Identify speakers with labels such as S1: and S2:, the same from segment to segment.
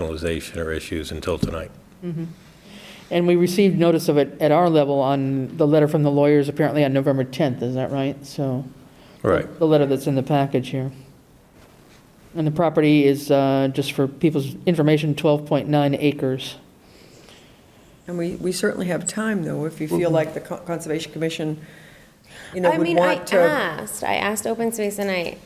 S1: rationalization or issues until tonight.
S2: And we received notice of it at our level on the letter from the lawyers, apparently on November 10th, is that right? So.
S1: Right.
S2: The letter that's in the package here. And the property is, uh, just for people's information, 12.9 acres.
S3: And we, we certainly have time, though, if you feel like the Con- Conservation Commission, you know,
S4: I
S3: would
S4: mean, I ah.
S3: want to.
S4: asked, I asked Open Space and I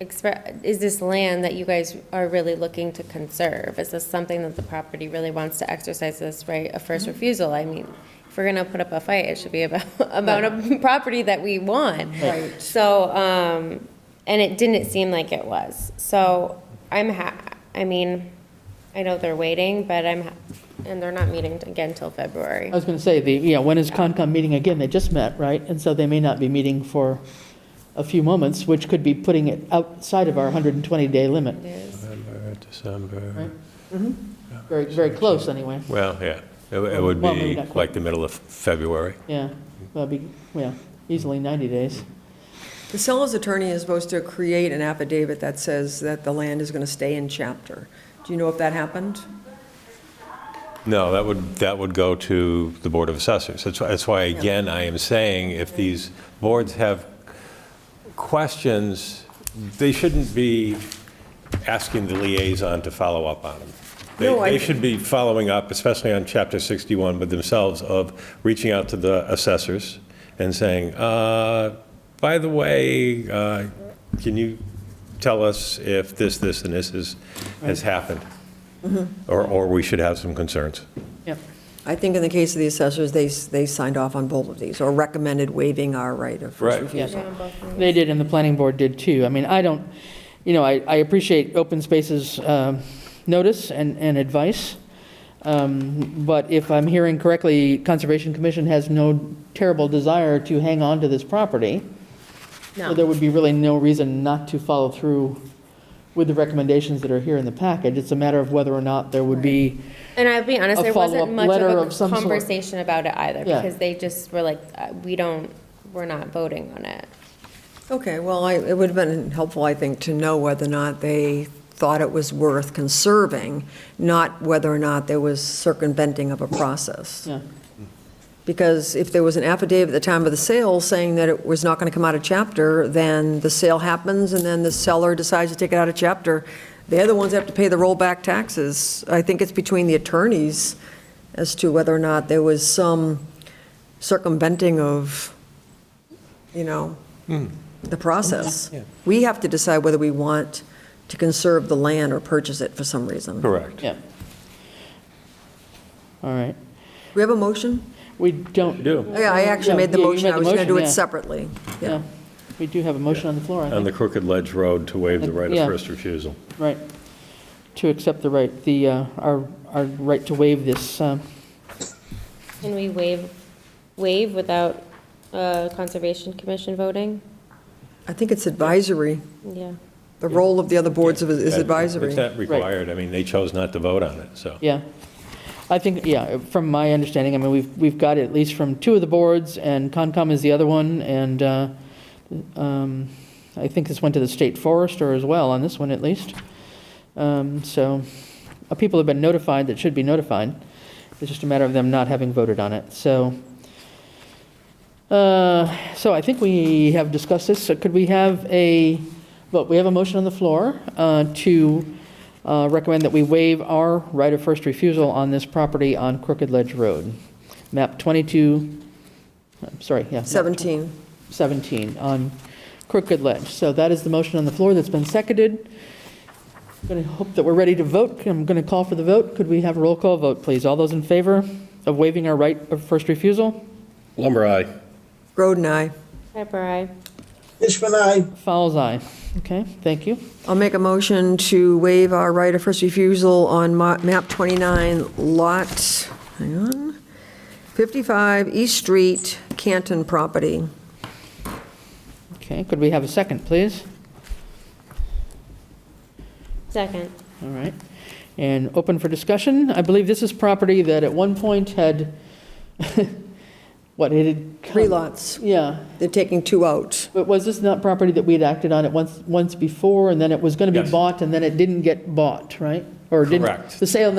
S4: expre is this land that you guys are really looking to conserve? Is this something that the property really wants to exercise this right of
S3: Mm-hmm.
S4: first refusal? I mean, if we're gonna put up a fight, it should be about, about a property that we want.
S3: Right.
S4: So, um, and it didn't seem like it was. So I'm ha, I mean, I know they're waiting, but I'm, ha- and they're not meeting again till February.
S2: I was going to say, the, you know, when is Concom meeting again? They just met, right? And so they may not be meeting for a few moments, which could be putting it outside of our 120-day limit.
S4: It is.
S1: November,
S2: Right.
S1: December,
S2: Very, very close, anyway.
S1: well, yeah, it it would
S2: Well, maybe
S1: be
S2: not quite.
S1: like the middle of February.
S2: Yeah, that'd be, yeah, easily 90 days.
S3: The seller's attorney is supposed to create an affidavit that says that the land is going to stay in chapter. Do you know if that happened?
S1: No, that would, that would go to the Board of Assessors. That's why, that's why, again, I am saying, if these boards have questions, they shouldn't be asking the liaison to follow up on them. They,
S3: No, I-
S1: they should be following up, especially on Chapter 61 with themselves, of reaching out to the assessors and saying, uh, by the way, uh, can you tell us if this, this, and this is, has happened? Or, or we should have some concerns.
S2: Yep.
S3: I think in the case of the assessors, they, s- they signed off on both of these, or recommended waiving our right of first
S1: Right.
S3: refusal.
S2: They did, and the planning board did too. I mean, I don't, you know, I, I appreciate open spaces um, notice and, and advice, Um, but if I'm hearing correctly, Conservation Commission has no terrible desire to hang on to this property. So
S4: No.
S2: there would be really no reason not to follow through with the recommendations that are here in the package. It's a matter of whether or not there would be,
S4: And I'll be honest,
S2: a
S4: there
S2: follow-up
S4: wasn't much
S2: letter of
S4: of a
S2: some sort.
S4: conversation about it either,
S2: Yeah.
S4: because they just were like, uh, we don't, we're not voting on it.
S3: Okay, well, I, it would have been helpful, I think, to know whether or not they thought it was worth conserving, not whether or not there was circumventing of a process.
S2: yeah,
S3: Because if there was an affidavit at the time of the sale saying that it was not going to come out of chapter, then the sale happens, and then the seller decides to take it out of chapter. They're the ones that have to pay the rollback taxes. I think it's between the attorneys as to whether or not there was some circumventing of, you know, the process. We have to decide whether we want to conserve the land or purchase it for some reason. Do
S1: Correct.
S2: yeah. All right.
S3: we have a motion?
S2: We don't.
S1: Do,
S3: Yeah, I actually made the
S2: Yeah, you
S3: motion.
S2: made
S3: I
S2: the
S3: was going to
S2: motion,
S3: do
S2: yeah.
S3: it separately.
S2: Yeah, we do have a motion on the floor, I
S1: on
S2: think,
S1: the Crooked Ledge Road to waive the right of
S2: Yeah.
S1: first refusal.
S2: right, to accept the right, the, uh, our, our right to waive this, um,
S4: Can we waive, waive without uh, Conservation Commission voting?
S3: I think it's advisory.
S4: Yeah.
S3: The role of the other boards of- is
S1: That-
S3: advisory.
S1: It's not required, I mean, they chose not to vote on it, so.
S2: yeah. I think, yeah, from my understanding, I mean, we've, we've got it at least from two of the boards, and Concom is the other one, and uh, um, I think this went to the state forester as well, on this one at least. Um, So, uh, people have been notified that should be notified, it's just a matter of them not having voted on it, so. Uh, So I think we have discussed this. So Could we have a, vote? we have a motion on the floor uh, to uh, recommend that we waive our right of first refusal on this property on Crooked Ledge Road, map 22, I'm sorry, yeah. map
S3: 17.
S2: 17 on Crooked Ledge. So that is the motion on the floor that's been seconded. Going to hope that we're ready to vote. I'm going to call for the vote. Could we have a roll call vote, please? All those in favor of waiving our right of first refusal?
S1: Lumber aye.
S3: Groden, aye.
S4: Pepper, aye.
S5: Fishman, aye.
S2: Fowles, aye. Okay, thank you.
S3: I'll make a motion to waive our right of first refusal on ma- map 29, lot, hang on, 55 East Street, Canton property.
S2: Okay, could we have a second, please?
S4: Second.
S2: All right. And open for discussion. I believe this is property that at one point had what it had. come-
S3: Three lots.
S2: Yeah,
S3: They're taking two out.
S2: but was this not property that we'd acted on it once, once before, and then it was going to be
S1: Yes.
S2: bought, and then it didn't get bought, right? Or didn't
S1: Correct.
S2: The sale